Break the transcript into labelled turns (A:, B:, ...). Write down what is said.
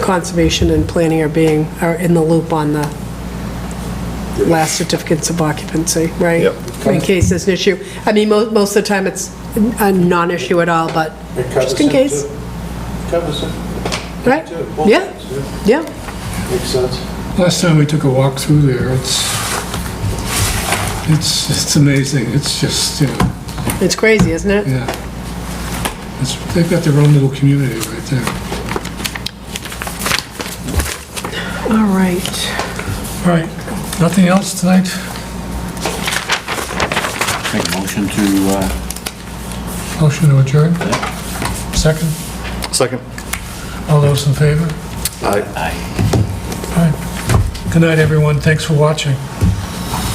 A: conservation and planning are being, are in the loop on the last certificates of occupancy, right?
B: Yep.
A: In case there's an issue. I mean, mo- most of the time, it's a non-issue at all, but
C: It covers
A: just in
C: it,
A: case,
C: too. Covers it,
A: right?
C: too. Both
A: Yeah,
C: sides, yeah.
A: yeah,
C: Makes sense.
D: Last time we took a walk through there, it's, it's, it's amazing, it's just, you know,
A: it's crazy, isn't it?
D: yeah. It's, they've got their own little community right there.
A: All right.
D: All right, nothing else tonight?
E: Make a motion to, uh,
D: Motion to adjourn? Second?
B: Second.
D: All those in favor?
B: Aye.
E: aye.
D: All right. Good night, everyone, thanks for watching.